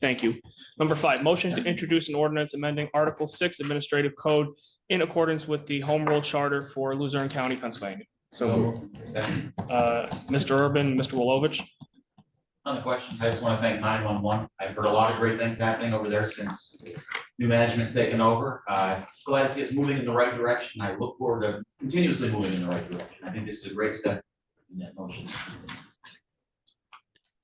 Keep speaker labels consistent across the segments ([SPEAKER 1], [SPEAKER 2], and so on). [SPEAKER 1] Thank you. Number five, motion to introduce an ordinance amending Article Six Administrative Code in accordance with the Home Rule Charter for Luzerne County, Pennsylvania.
[SPEAKER 2] So moved.
[SPEAKER 3] Second.
[SPEAKER 1] Uh, Mr. Urban, Mr. Wilovich,
[SPEAKER 3] On the questions, I just want to thank nine one one. I've heard a lot of great things happening over there since new management's taken over. Uh, glad to see us moving in the right direction. I look forward to continuously moving in the right direction. I think this is a great step in that motion.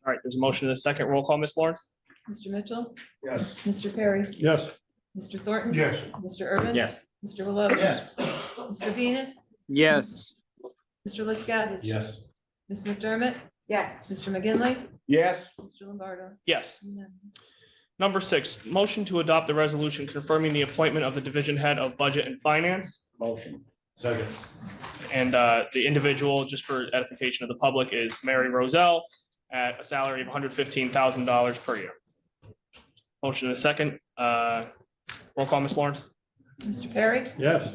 [SPEAKER 1] all right, there's a motion in a second. Roll call, Ms. Lawrence?
[SPEAKER 4] Mr. Mitchell,
[SPEAKER 2] Yes.
[SPEAKER 4] Mr. Perry,
[SPEAKER 2] Yes.
[SPEAKER 4] Mr. Thornton.
[SPEAKER 2] Yes.
[SPEAKER 4] Mr. Urban.
[SPEAKER 1] Yes.
[SPEAKER 4] Mr. Willoughby.
[SPEAKER 2] Yes.
[SPEAKER 4] Mr. Venus,
[SPEAKER 5] yes,
[SPEAKER 4] Mr. Liscavige.
[SPEAKER 2] Yes.
[SPEAKER 4] Ms. McDermott. Yes. Mr. McGinley,
[SPEAKER 2] Yes.
[SPEAKER 4] Mr. Lombardo.
[SPEAKER 1] Yes. Number six, motion to adopt the resolution confirming the appointment of the division head of budget and finance.
[SPEAKER 2] Motion. Second.
[SPEAKER 1] And uh, the individual, just for edification of the public, is Mary Roselle at a salary of hundred fifteen thousand dollars per year. Motion in a second. Uh, Roll call, Ms. Lawrence?
[SPEAKER 4] Mr. Perry,
[SPEAKER 2] Yes.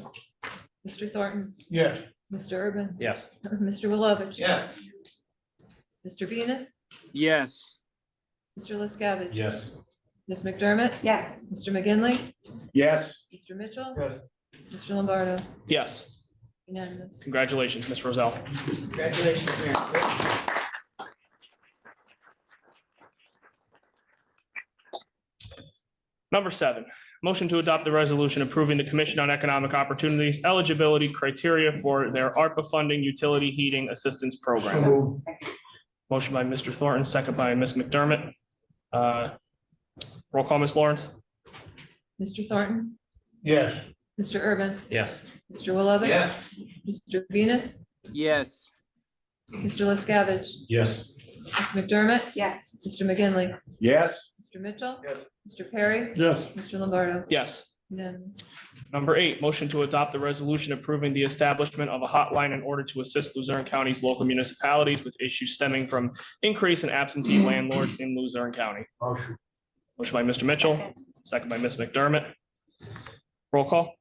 [SPEAKER 4] Mr. Thornton,
[SPEAKER 2] Yes.
[SPEAKER 4] Mr. Urban,
[SPEAKER 2] Yes.
[SPEAKER 4] Mr. Willoughby.
[SPEAKER 2] Yes.
[SPEAKER 4] Mr. Venus,
[SPEAKER 5] yes,
[SPEAKER 4] Mr. Liscavige.
[SPEAKER 2] Yes.
[SPEAKER 4] Ms. McDermott. Yes. Mr. McGinley,
[SPEAKER 2] Yes.
[SPEAKER 4] Mr. Mitchell,
[SPEAKER 2] Yes.
[SPEAKER 4] Mr. Lombardo.
[SPEAKER 1] Yes.
[SPEAKER 4] Unanimous.
[SPEAKER 1] Congratulations, Ms. Roselle.
[SPEAKER 2] Congratulations, Mayor.
[SPEAKER 1] Number seven, motion to adopt the resolution approving the Commission on Economic Opportunities eligibility criteria for their ARPA funding utility heating assistance program. Motion by Mr. Thornton, second by Ms. McDermott. Uh, Roll call, Ms. Lawrence?
[SPEAKER 4] Mr. Thornton,
[SPEAKER 2] Yes.
[SPEAKER 4] Mr. Urban,
[SPEAKER 1] Yes.
[SPEAKER 4] Mr. Willoughby.
[SPEAKER 2] Yes.
[SPEAKER 4] Mr. Venus,
[SPEAKER 5] yes,
[SPEAKER 4] Mr. Liscavige.
[SPEAKER 2] Yes.
[SPEAKER 4] Ms. McDermott? Yes. Mr. McGinley?
[SPEAKER 2] Yes.
[SPEAKER 4] Mr. Mitchell?
[SPEAKER 2] Yes.
[SPEAKER 4] Mr. Perry?
[SPEAKER 2] Yes.
[SPEAKER 4] Mr. Lombardo?
[SPEAKER 1] Yes.
[SPEAKER 4] Unanimous.
[SPEAKER 1] Number eight, motion to adopt the resolution approving the establishment of a hotline in order to assist Luzerne County's local municipalities with issues stemming from increase in absentee landlords in Luzerne County.
[SPEAKER 2] Motion.
[SPEAKER 1] Motion by Mr. Mitchell, second by Ms. McDermott. Roll call?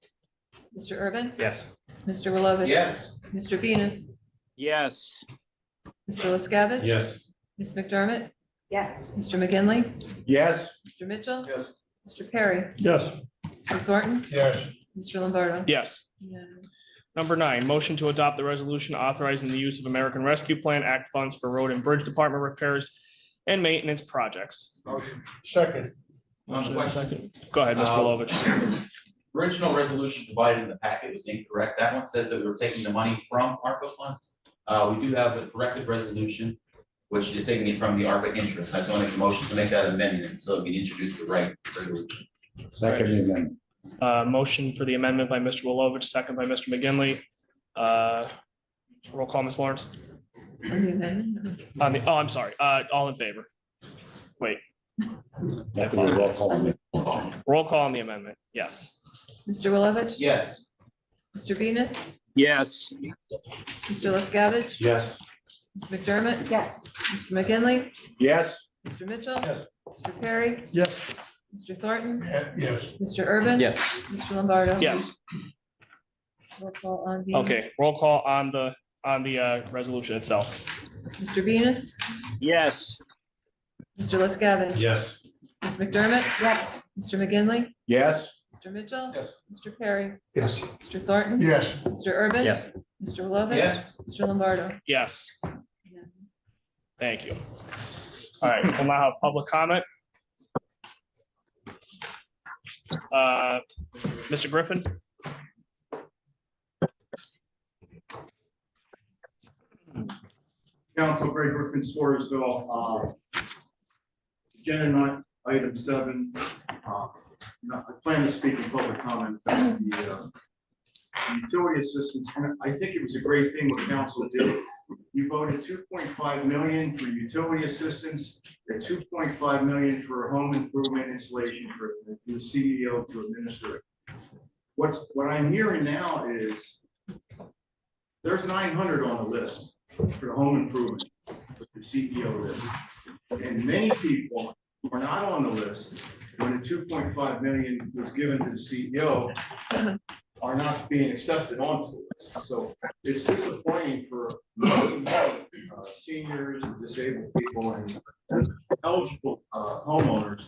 [SPEAKER 4] Mr. Urban?
[SPEAKER 2] Yes.
[SPEAKER 4] Mr. Willoughby?
[SPEAKER 2] Yes.
[SPEAKER 4] Mr. Venus?
[SPEAKER 5] yes,
[SPEAKER 4] Mr. Liscavige?
[SPEAKER 2] Yes.
[SPEAKER 4] Ms. McDermott? Yes. Mr. McGinley?
[SPEAKER 2] Yes.
[SPEAKER 4] Mr. Mitchell?
[SPEAKER 2] Yes.
[SPEAKER 4] Mr. Perry?
[SPEAKER 2] Yes.
[SPEAKER 4] Mr. Thornton?
[SPEAKER 2] Yes.
[SPEAKER 4] Mr. Lombardo?
[SPEAKER 1] Yes.
[SPEAKER 4] Unanimous.
[SPEAKER 1] Number nine, motion to adopt the resolution authorizing the use of American Rescue Plan Act funds for road and bridge department repairs and maintenance projects.
[SPEAKER 2] Motion. Second.
[SPEAKER 3] On
[SPEAKER 1] Motion and
[SPEAKER 3] the
[SPEAKER 1] a
[SPEAKER 3] question-
[SPEAKER 1] second. Go ahead, Mr.
[SPEAKER 3] Uh,
[SPEAKER 1] Belovitch.
[SPEAKER 3] Original resolution provided in the packet was incorrect. That one says that we were taking the money from ARPA funds. Uh, we do have a corrected resolution, which is taking it from the ARPA interest. I just want to make a motion to make that amendment so that we introduce the right resolution.
[SPEAKER 2] Second amendment.
[SPEAKER 1] Uh, motion for the amendment by Mr. Wilovich, second by Mr. McGinley. Uh, roll call, Ms. Lawrence.
[SPEAKER 4] On the amendment?
[SPEAKER 1] I mean, oh, I'm sorry. Uh, all in favor.
[SPEAKER 2] That could be a roll call.
[SPEAKER 1] Roll call on the amendment. Yes.
[SPEAKER 4] Mr. Willoughby?
[SPEAKER 3] Yes.
[SPEAKER 4] Mr. Venus?
[SPEAKER 5] yes,
[SPEAKER 4] Mr. Liscavige?
[SPEAKER 2] Yes.
[SPEAKER 4] Ms. McDermott? Yes. Mr. McGinley?
[SPEAKER 2] Yes.
[SPEAKER 4] Mr. Mitchell?
[SPEAKER 2] Yes.
[SPEAKER 4] Mr. Perry?
[SPEAKER 2] Yes.
[SPEAKER 4] Mr. Thornton?
[SPEAKER 2] Yes.
[SPEAKER 4] Mr. Urban?
[SPEAKER 5] yes,
[SPEAKER 4] Mr. Lombardo?
[SPEAKER 1] Yes.
[SPEAKER 4] Roll call on the-
[SPEAKER 1] Okay. Roll call on the, on the, uh, resolution itself.
[SPEAKER 4] Mr. Venus,
[SPEAKER 5] yes,
[SPEAKER 4] Mr. Liscavige.
[SPEAKER 2] Yes.
[SPEAKER 4] Ms. McDermott. Yes. Mr. McGinley,
[SPEAKER 2] Yes.
[SPEAKER 4] Mr. Mitchell.
[SPEAKER 2] Yes.
[SPEAKER 4] Mr. Perry,
[SPEAKER 2] Yes.
[SPEAKER 4] Mr. Thornton.
[SPEAKER 2] Yes.
[SPEAKER 4] Mr. Urban.
[SPEAKER 5] Yes.
[SPEAKER 4] Mr. Lovett.
[SPEAKER 2] Yes.
[SPEAKER 4] Mr. Lombardo.
[SPEAKER 1] Yes.
[SPEAKER 4] Yeah.
[SPEAKER 1] Thank you. All right, we'll now have public comment. Uh, Mr. Griffin?
[SPEAKER 6] Council Greg Griffin Swarsville, uh, agenda nine, item seven, uh, no, I plan to speak in public comment about the, uh, utility assistance, and I think it was a great thing what council did. You voted two point five million for utility assistance, and two point five million for home improvement installation for the CEO to administer it. What's, what I'm hearing now is there's nine hundred on the list for home improvement, with the CEO list. And many people were not on the list when the two point five million was given to the E CEO are not being accepted onto the list. So it's disappointing for uh, seniors and disabled people and eligible uh, homeowners